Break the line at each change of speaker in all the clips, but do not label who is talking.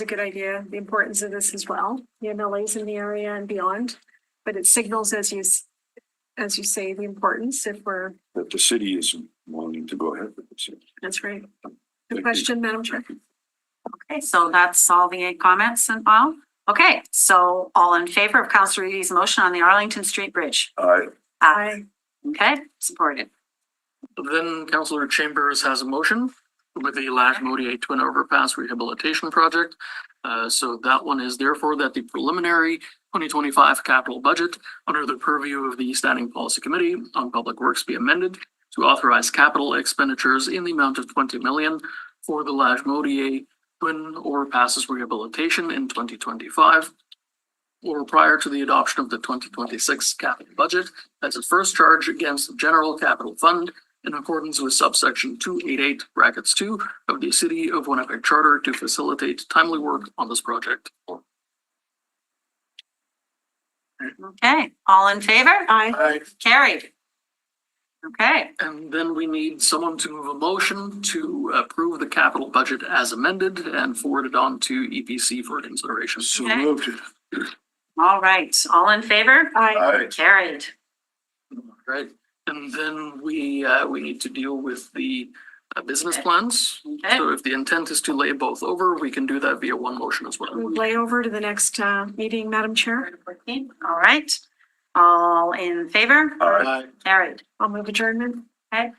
a good idea, the importance of this as well, the MLAs in the area and beyond. But it signals as you, s- as you say, the importance if we're,
that the city is wanting to go ahead with this.
that's right.
Thank
Good
you.
question, Madam Chair.
Okay, so that's all the eight comments and all. Okay, so all in favor of Counselor Reedy's motion on the Arlington Street Bridge?
I,
Aye.
Okay, supported.
Then Councilor Chambers has a motion with the Lash Modier Twin Overpass Rehabilitation Project. Uh, so that one is therefore that the preliminary twenty twenty-five capital budget under the purview of the Standing Policy Committee on Public Works be amended to authorize capital expenditures in the amount of twenty million for the Lash Modier Twin Overpasses Rehabilitation in twenty twenty-five or prior to the adoption of the twenty twenty-six capital budget as a first charge against the general capital fund in accordance with subsection two eight eight brackets two of the City of Winnipeg Charter to facilitate timely work on this project.
Okay, all in favor?
Aye.
Carried. Okay,
And then we need someone to move a motion to approve the capital budget as amended and forward it on to EPC for consideration.
so
Okay.
moved.
all right, all in favor?
Aye.
I,
Carried.
Right, and then we, uh, we need to deal with the uh, business plans.
Okay,
So if the intent is to lay both over, we can do that via one motion as well.
Move Lay over to the next uh, meeting, Madam Chair.
all right. All in favor?
I.
Aye.
Carried.
I'll move adjournment.
Okay,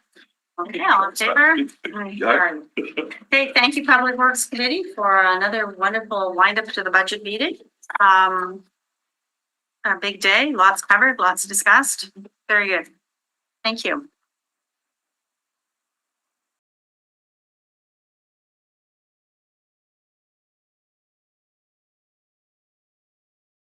all in favor?
Aye.
I-
Carried. Okay, thank you, Public Works Committee, for another wonderful windup to the budget meeting. Um, a big day, lots covered, lots discussed. Very good. Thank you.